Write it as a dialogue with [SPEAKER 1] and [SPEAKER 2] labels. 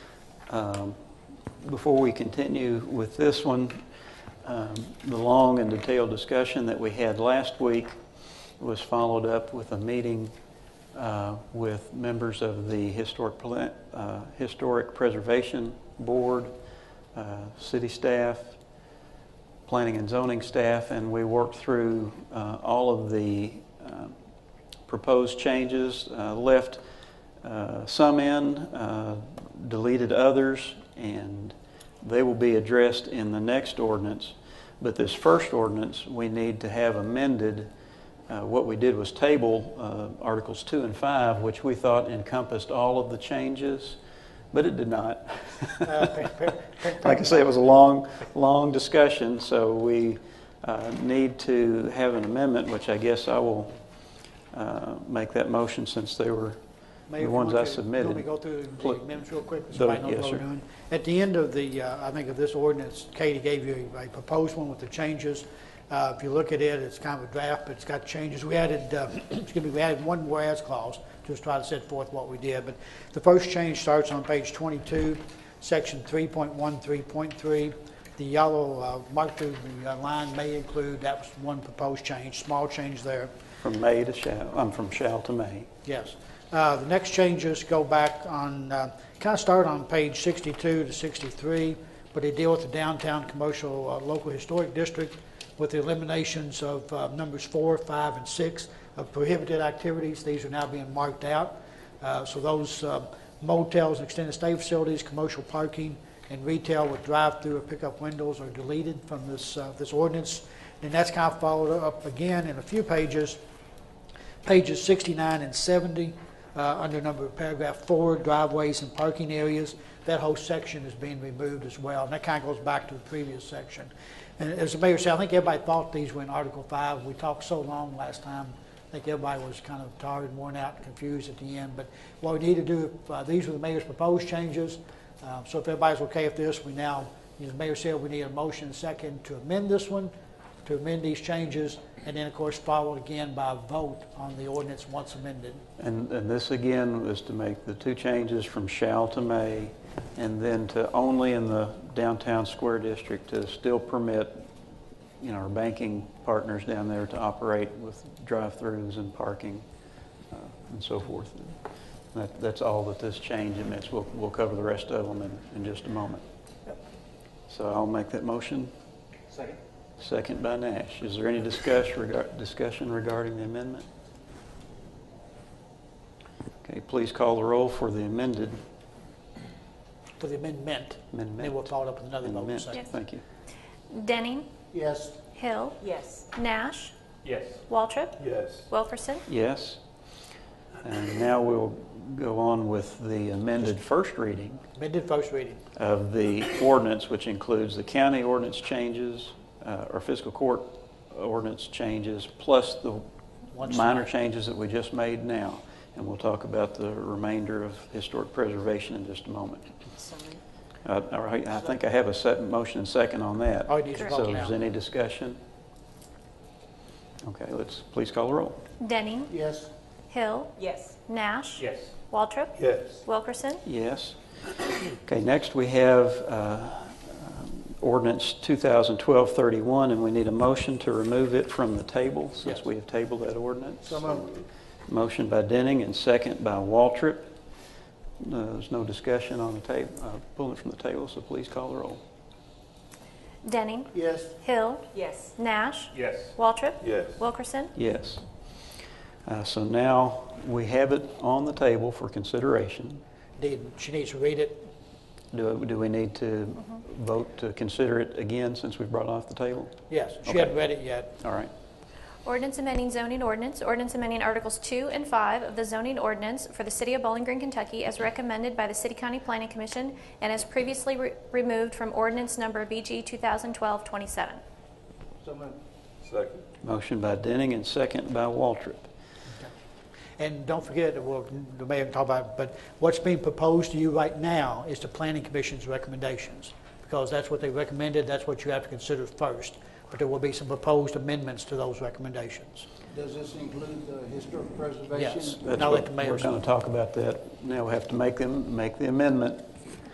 [SPEAKER 1] Um, Before we continue with this one, um, the long and detailed discussion that we had last week was followed up with a meeting uh, with members of the Historic, Pla- uh, Historic Preservation Board, uh, city staff, planning and zoning staff, and we worked through uh, all of the um, proposed changes, uh, left uh, some in, uh, deleted others, and they will be addressed in the next ordinance. But this first ordinance, we need to have amended. Uh, What we did was table uh, Articles 2 and 5, which we thought encompassed all of the changes, but it did not. Like I say, it was a long, long discussion, so we uh, need to have an amendment, which I guess I will uh, make that motion since they were
[SPEAKER 2] Mayor,
[SPEAKER 1] the
[SPEAKER 2] if you
[SPEAKER 1] ones
[SPEAKER 2] want
[SPEAKER 1] I
[SPEAKER 2] to-
[SPEAKER 1] submitted.
[SPEAKER 2] Let me go through the
[SPEAKER 1] Pl-
[SPEAKER 2] amendments real quick, so
[SPEAKER 1] Those-
[SPEAKER 2] I know
[SPEAKER 1] yes,
[SPEAKER 2] what we're
[SPEAKER 1] sir.
[SPEAKER 2] doing. At the end of the, uh, I think of this ordinance, Katie gave you a proposed one with the changes. Uh, If you look at it, it's kind of a draft, but it's got changes. We added, uh, excuse me, we added one whereas clause, just try to set forth what we did. But the first change starts on page 22, section 3.13.3. The yellow uh, marked through the uh, line may include, that was one proposed change, small change there.
[SPEAKER 1] From May to shall, I'm from shall to may.
[SPEAKER 2] Yes. Uh, The next changes go back on, kind of start on page 62 to 63, but they deal with the downtown commercial uh, local historic district with the eliminations of uh, numbers four, five, and six of prohibited activities. These are now being marked out. Uh, So those uh, motels, and extended stay facilities, commercial parking, and retail with drive-through or pickup windows are deleted from this, uh, this ordinance. And that's kind of followed up again in a few pages pages 69 and 70, uh, under number of paragraph four, driveways and parking areas. That whole section is being removed as well, and that kind of goes back to the previous section. And as the mayor said, I think everybody thought these were in Article 5. We talked so long last time, I think everybody was kind of tired and worn out and confused at the end. But what we need to do, uh, these were the mayor's proposed changes, Uh, so if everybody's okay with this, we now, as the mayor said, we need a motion second to amend this one, to amend these changes, and then, of course, followed again by a vote on the ordinance once amended.
[SPEAKER 1] And, and this again was to make the two changes from shall to may, and then to only in the downtown square district to still permit, you know, our banking partners down there to operate with drive-throughs and parking uh, and so forth. That, that's all that this change admits. We'll, we'll cover the rest of them in, in just a moment. So I'll make that motion.
[SPEAKER 3] Second.
[SPEAKER 1] Second by Nash. Is there any discuss regar- discussion regarding the amendment? Okay, please call the roll for the amended
[SPEAKER 2] For the amendment, then we'll
[SPEAKER 1] amendment.
[SPEAKER 2] follow it up with another vote in a
[SPEAKER 1] Amendment.
[SPEAKER 2] second.
[SPEAKER 1] Thank you.
[SPEAKER 4] Denning,
[SPEAKER 2] Yes.
[SPEAKER 4] Hill,
[SPEAKER 5] Yes.
[SPEAKER 4] Nash,
[SPEAKER 3] Yes.
[SPEAKER 4] Waltrip,
[SPEAKER 3] Yes.
[SPEAKER 4] Wilkerson.
[SPEAKER 1] Yes. And now we'll go on with the amended first reading
[SPEAKER 2] Amended first reading.
[SPEAKER 1] of the ordinance, which includes the county ordinance changes, uh, or fiscal court ordinance changes, plus the
[SPEAKER 2] Once-
[SPEAKER 1] minor changes that we just made now. And we'll talk about the remainder of historic preservation in just a moment.
[SPEAKER 5] So moved.
[SPEAKER 1] Uh, All right, I think I have a second, motion and second on that.
[SPEAKER 2] Oh, it needs a
[SPEAKER 1] So
[SPEAKER 2] vote
[SPEAKER 1] is
[SPEAKER 2] now.
[SPEAKER 1] any discussion? Okay, let's, please call the roll.
[SPEAKER 4] Denning,
[SPEAKER 2] Yes.
[SPEAKER 4] Hill,
[SPEAKER 5] Yes.
[SPEAKER 4] Nash,
[SPEAKER 3] Yes.
[SPEAKER 4] Waltrip,
[SPEAKER 3] Yes.
[SPEAKER 4] Wilkerson.
[SPEAKER 1] Yes. Okay, next we have uh, um, ordinance 2012-31, and we need a motion to remove it from the table, since
[SPEAKER 2] Yes.
[SPEAKER 1] we have tabled that ordinance.
[SPEAKER 2] So moved.
[SPEAKER 1] Motion by Denning and second by Waltrip. No, There's no discussion on the table, pulling it from the table, so please call the roll.
[SPEAKER 4] Denning,
[SPEAKER 2] Yes.
[SPEAKER 4] Hill,
[SPEAKER 5] Yes.
[SPEAKER 4] Nash,
[SPEAKER 3] Yes.
[SPEAKER 4] Waltrip,
[SPEAKER 3] Yes.
[SPEAKER 4] Wilkerson.
[SPEAKER 1] Yes. Uh, So now we have it on the table for consideration.
[SPEAKER 2] Did- She needs to read it.
[SPEAKER 1] Do do we need to vote to consider it again since we brought it off the table?
[SPEAKER 2] Yes, she
[SPEAKER 1] Okay.
[SPEAKER 2] hadn't read it yet.
[SPEAKER 1] All right.
[SPEAKER 4] Ordinance amending zoning ordinance, ordinance amending Articles 2 and 5 of the zoning ordinance for the city of Bowling Green, Kentucky, as recommended by the City County Planning Commission and as previously re- removed from ordinance number BG 2012-27.
[SPEAKER 3] So moved. Second.
[SPEAKER 1] Motion by Denning and second by Waltrip.
[SPEAKER 2] And don't forget, that we'll, the mayor can talk about, it, but what's being proposed to you right now is the planning commission's recommendations, because that's what they recommended, that's what you have to consider first. But there will be some proposed amendments to those recommendations.
[SPEAKER 6] Does this include the historic preservation?
[SPEAKER 2] Yes.
[SPEAKER 1] That's
[SPEAKER 2] Now let
[SPEAKER 1] what
[SPEAKER 2] the mayor
[SPEAKER 1] We're going to talk about that. Now we have to make them, make the amendment